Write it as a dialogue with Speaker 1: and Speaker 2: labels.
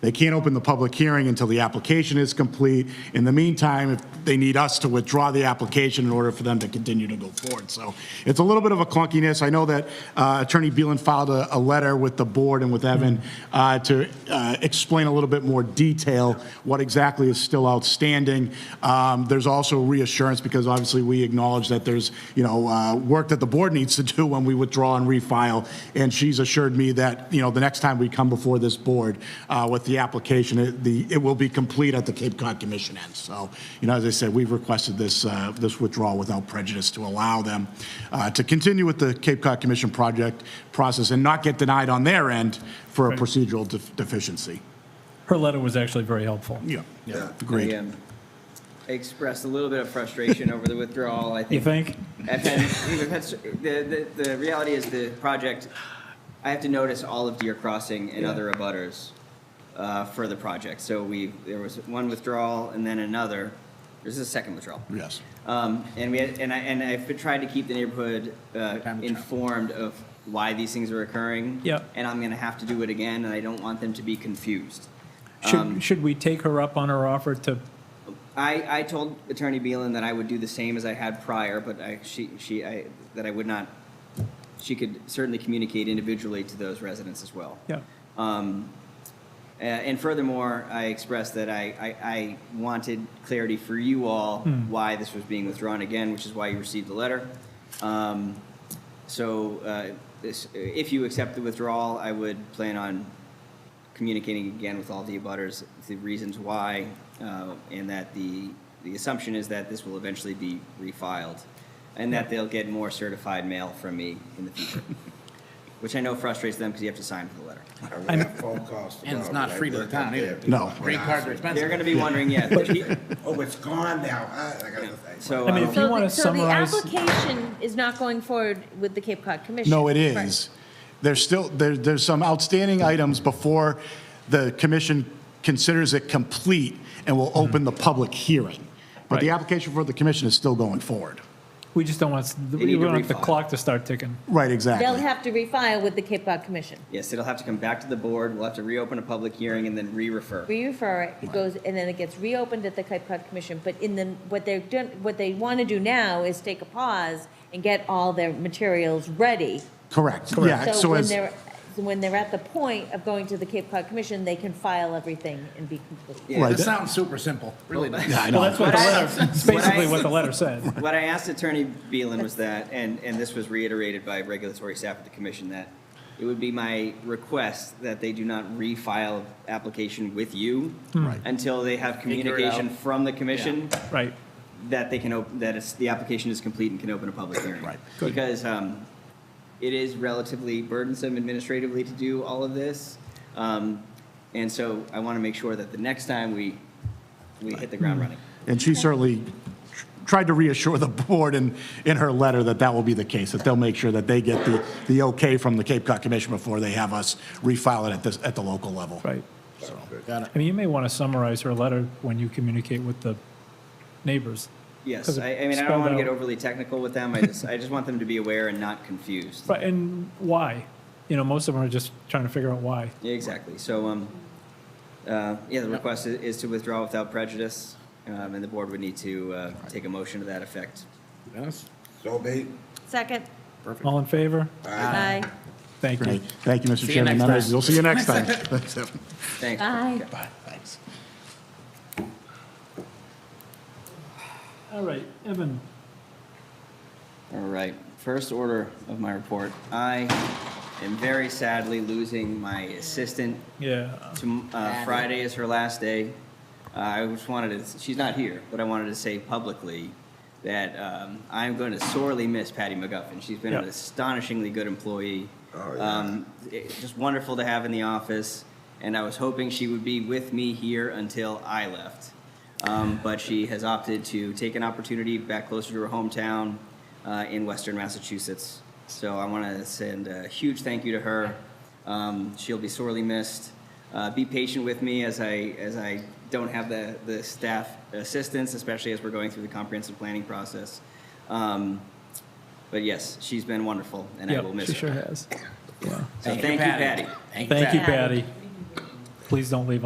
Speaker 1: They can't open the public hearing until the application is complete. In the meantime, if they need us to withdraw the application in order for them to continue to go forward. So it's a little bit of a clunkiness. I know that uh, Attorney Beelen filed a, a letter with the board and with Evan uh, to uh, explain a little bit more detail what exactly is still outstanding. Um, There's also reassurance, because obviously we acknowledge that there's, you know, uh, work that the board needs to do when we withdraw and refile. And she's assured me that, you know, the next time we come before this board uh, with the application, it, the, it will be complete at the Cape Cod Commission end. So, you know, as I said, we've requested this, uh, this withdrawal without prejudice to allow them uh, to continue with the Cape Cod Commission project process and not get denied on their end for a procedural def- deficiency.
Speaker 2: Her letter was actually very helpful.
Speaker 1: Yeah,
Speaker 3: Yeah.
Speaker 1: yeah, agreed.
Speaker 4: I um, I expressed a little bit of frustration over the withdrawal. I
Speaker 2: You think?
Speaker 4: think I've had, we've had, s- the, the, the reality is the project, I have to notice all of Deer Crossing and other abutters uh, for the project. So we, there was one withdrawal and then another. There's a second withdrawal.
Speaker 1: Yes.
Speaker 4: Um, and we had, and I, and I've been trying to keep the neighborhood uh, informed of why these things are occurring.
Speaker 2: Yep.
Speaker 4: And I'm gonna have to do it again, and I don't want them to be confused. Um,
Speaker 2: Should, should we take her up on her offer to,
Speaker 4: I, I told Attorney Beelen that I would do the same as I had prior, but I, she, she, I, that I would not, she could certainly communicate individually to those residents as well.
Speaker 2: yeah,
Speaker 4: Uh, And furthermore, I expressed that I, I, I wanted clarity for you all why this was being withdrawn again, which is why you received the letter. Um, So uh, this, if you accept the withdrawal, I would plan on communicating again with all the abutters the reasons why, uh, and that the, the assumption is that this will eventually be refiled, and that they'll get more certified mail from me in the future, which I know frustrates them because you have to sign for the letter.
Speaker 2: I'm-
Speaker 5: And it's not free to the town either.
Speaker 1: No.
Speaker 5: Rate cards are expensive.
Speaker 4: They're going to be wondering, yeah. the-
Speaker 3: Oh, it's gone now, huh? I gotta go say.
Speaker 4: So,
Speaker 2: I mean, if
Speaker 4: um,
Speaker 2: you
Speaker 6: So the-
Speaker 2: wanna summarize-
Speaker 6: So the application is not going forward with the Cape Cod Commission?
Speaker 1: No, it
Speaker 6: Right.
Speaker 1: is. There's still, there, there's some outstanding items before the commission considers it complete and will open the public hearing. But the
Speaker 2: Right.
Speaker 1: application for the commission is still going forward.
Speaker 2: we just don't want,
Speaker 4: need
Speaker 2: we
Speaker 4: to
Speaker 2: don't want the
Speaker 4: refile.
Speaker 2: clock to start ticking.
Speaker 1: Right,
Speaker 6: They'll
Speaker 1: exactly.
Speaker 6: have to refile with the Cape Cod Commission.
Speaker 4: yes, it'll have to come back to the board. We'll have to reopen a public hearing and then re-refer.
Speaker 6: We refer it, it goes, and then it gets reopened at the Cape Cod Commission, but in the, what they're doing, what they want to do now is take a pause and get all their materials ready.
Speaker 1: Correct, yeah.
Speaker 6: So when
Speaker 1: as-
Speaker 6: they're, so when they're at the point of going to the Cape Cod Commission, they can file everything and be complete.
Speaker 1: Right.
Speaker 5: It sounds super simple, really does.
Speaker 1: Yeah, I
Speaker 2: Well,
Speaker 1: know.
Speaker 2: that's what the
Speaker 4: What I-
Speaker 2: letter, that's
Speaker 4: what I-
Speaker 2: basically what the letter said.
Speaker 4: What I asked Attorney Beelen was that, and, and this was reiterated by regulatory staff at the commission, that it would be my request that they do not refile application with you
Speaker 2: Hmm.
Speaker 1: Right.
Speaker 4: until they have communication
Speaker 5: out.
Speaker 4: from the commission
Speaker 2: Right,
Speaker 4: that they can open, that it's, the application is complete and can open a public hearing.
Speaker 1: Right.
Speaker 2: Good.
Speaker 4: Because um, it is relatively burdensome administratively to do all of this. Um, And so I want to make sure that the next time we, we hit the
Speaker 2: Hmm.
Speaker 4: ground running.
Speaker 1: And she certainly tr- tried to reassure the board in, in her letter that that will be the case, that they'll make sure that they get the, the okay from the Cape Cod Commission before they have us refile it at this, at the local level.
Speaker 2: right.
Speaker 5: Got it.
Speaker 2: I mean, you may want to summarize her letter when you communicate with the neighbors.
Speaker 4: Yes,
Speaker 2: 'Cause it
Speaker 4: I, I mean, I don't want to
Speaker 2: spelled
Speaker 4: get
Speaker 2: out-
Speaker 4: overly technical with them. I just, I just want them to be aware and not confused.
Speaker 2: Right, and why? You know, most of them are just trying to figure out why.
Speaker 4: Yeah, Exactly. So, um, uh, yeah, the request i- is to withdraw without prejudice, um, and the board would need to uh, take a motion to that effect.
Speaker 5: Dennis?
Speaker 3: So be,
Speaker 6: Second?
Speaker 2: All in favor?
Speaker 6: Aye.
Speaker 2: Thank you.
Speaker 1: Great, thank you, Mr.
Speaker 5: you
Speaker 1: Chairman.
Speaker 5: next
Speaker 1: members.
Speaker 5: time.
Speaker 1: We'll see you next time. Thanks, Evan.
Speaker 4: Thanks.
Speaker 6: Aye.
Speaker 1: Bye, thanks.
Speaker 2: All right, Evan,
Speaker 4: All right, first order of my report. I am very sadly losing my assistant.
Speaker 2: yeah,
Speaker 4: Tom- uh, Friday is her last day. Uh, I just wanted to, she's not here, but I wanted to say publicly that um, I'm going to sorely miss Patty McGuffin. She's been an
Speaker 2: Yeah.
Speaker 4: astonishingly good employee.
Speaker 3: Oh, yeah.
Speaker 4: Um, it- Just wonderful to have in the office, and I was hoping she would be with me here until I left. Um, But she has opted to take an opportunity back closer to her hometown uh, in western Massachusetts. So I want to send a huge thank you to her. Um, She'll be sorely missed. Uh, Be patient with me as I, as I don't have the, the staff assistance, especially as we're going through the comprehensive planning process. Um, But yes, she's been wonderful, and I
Speaker 2: yeah,
Speaker 4: will miss
Speaker 2: she
Speaker 4: her.
Speaker 2: sure has.
Speaker 4: So thank you, Patty.
Speaker 5: Thank you,
Speaker 2: Thank you, Patty.
Speaker 5: Patty.
Speaker 2: Please don't leave